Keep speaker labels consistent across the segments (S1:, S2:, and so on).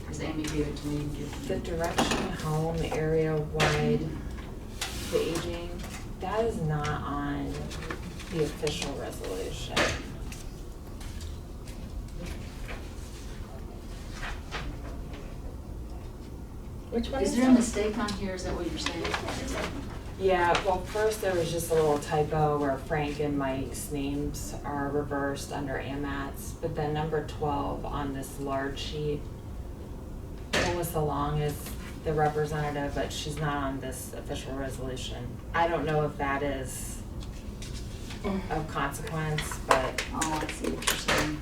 S1: because Amy gave it to me. and gave
S2: The
S1: it to me.
S2: direction home area wide, the aging, that is not on the official resolution.
S3: Which one
S1: Is
S3: is
S1: there a
S3: that?
S1: mistake on here, is that what you're saying?
S2: Yeah, well, first there was just a little typo where Frank and Mike's names are reversed under AMATs, but then number twelve on this large sheet, Melissa Long is the representative, but she's not on this official resolution. I don't know if that is of consequence, but
S1: Oh, I see what you're saying.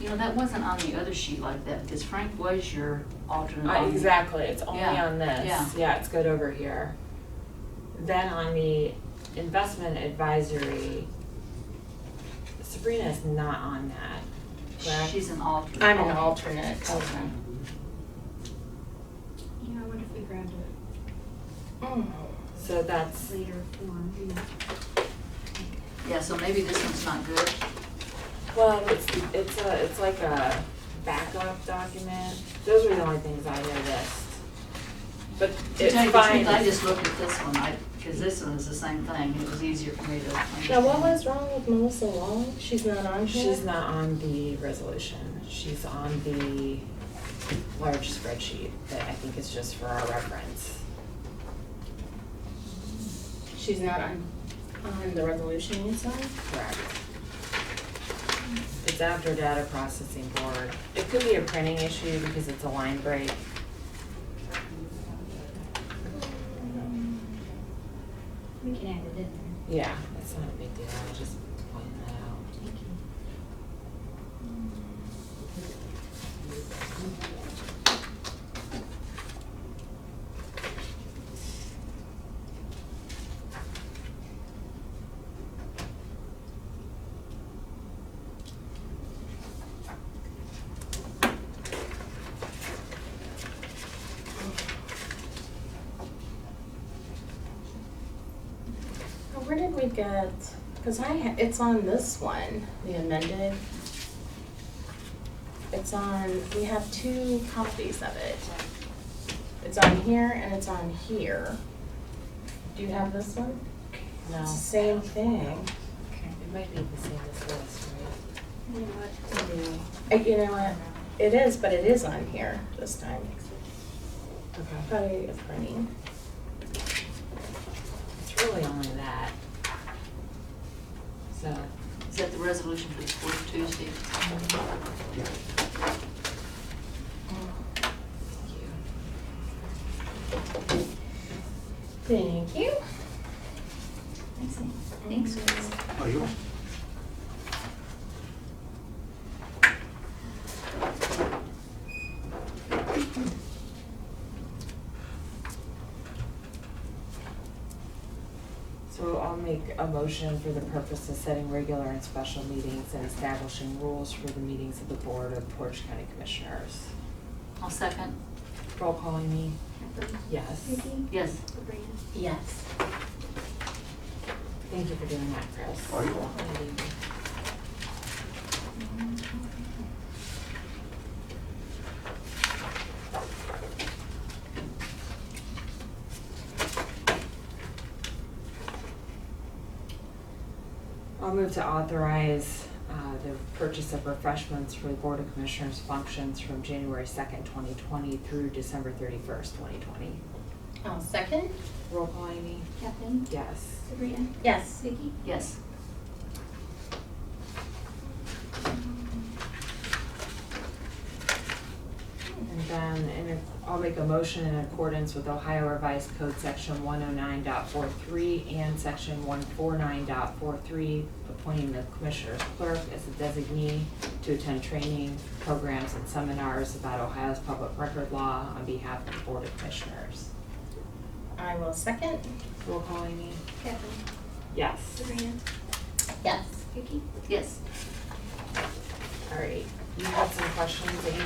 S1: You know, that wasn't on the other sheet like that, because Frank was your alternate.
S2: Uh,
S1: on-
S2: exactly, it's only
S1: Um, Yeah,
S2: on
S1: yeah.
S2: this, yeah, it's good over here. Then on the investment advisory, Sabrina is not on that. correct?
S1: She's an alternate.
S3: I'm an alternate.
S1: Okay.
S4: Yeah, I wonder if we grabbed it
S3: Mm.
S2: So that's,
S4: later form, you know.
S1: Yeah, so maybe this one's not good.
S2: well, it's, it's a, it's like a backup document, those were the only things I noticed. But
S1: To
S2: it's
S1: tell you the
S2: fine.
S1: truth, I just looked at this one, I, because this one is the same thing, it was easier for me to understand.
S3: Now, what was wrong with Melissa Long? She's not on here?
S2: She's not on the resolution, she's on the large spreadsheet that I think is just for our reference.
S3: She's not on, on the resolution you signed?
S2: Correct. It's after data processing board. It could be a printing issue because it's a line break.
S4: We can add it in there.
S2: Yeah. That's not a big deal, I was just pointing that out.
S4: Thank you.
S3: Now, Where did we get, because I, ha- it's on this one, the amended. It's on, we have two copies of it. It's on here and it's on here. Do you have this one?
S2: No,
S3: It's the same thing.
S2: it might be the same as this, right?
S4: You know what?
S3: Uh, You know what? It is, but it is on here this time.
S2: Okay.
S3: Probably a printing.
S2: It's really only that. So,
S1: Is that the resolution for the fourth Tuesday?
S2: thank you.
S3: Thank you.
S1: Thanks, Amy. Thanks, Chris.
S5: Are you?
S2: So I'll make a motion for the purpose of setting regular and special meetings and establishing rules for the meetings of the Board of Portage County Commissioners.
S1: I'll second.
S2: Roll calling me,
S4: Kathleen,
S2: yes.
S4: Vicky,
S1: Yes.
S4: Sabrina.
S3: Yes.
S2: Thank you for doing that, Chris.
S5: Oh, you're
S2: I'll move to authorize uh, the purchase of refreshments for the Board of Commissioners functions from January second, twenty twenty through December thirty-first, twenty twenty.
S3: I'll second.
S2: Roll call, Amy?
S4: Kathleen,
S2: Yes.
S4: Sabrina,
S3: Yes.
S4: Vicky.
S1: Yes.
S2: And then, in, I'll make a motion in accordance with Ohio Revised Code Section one oh nine and Section one four nine appointing the Commissioner's Clerk as a designee to attend training, programs, and seminars about Ohio's public record law on behalf of the Board of Commissioners.
S3: I will second.
S2: Roll call, Amy?
S4: Kathleen,
S2: Yes.
S4: Sabrina,
S3: Yes.
S4: Vicky.
S1: Yes.
S2: All right, you had some questions, Amy?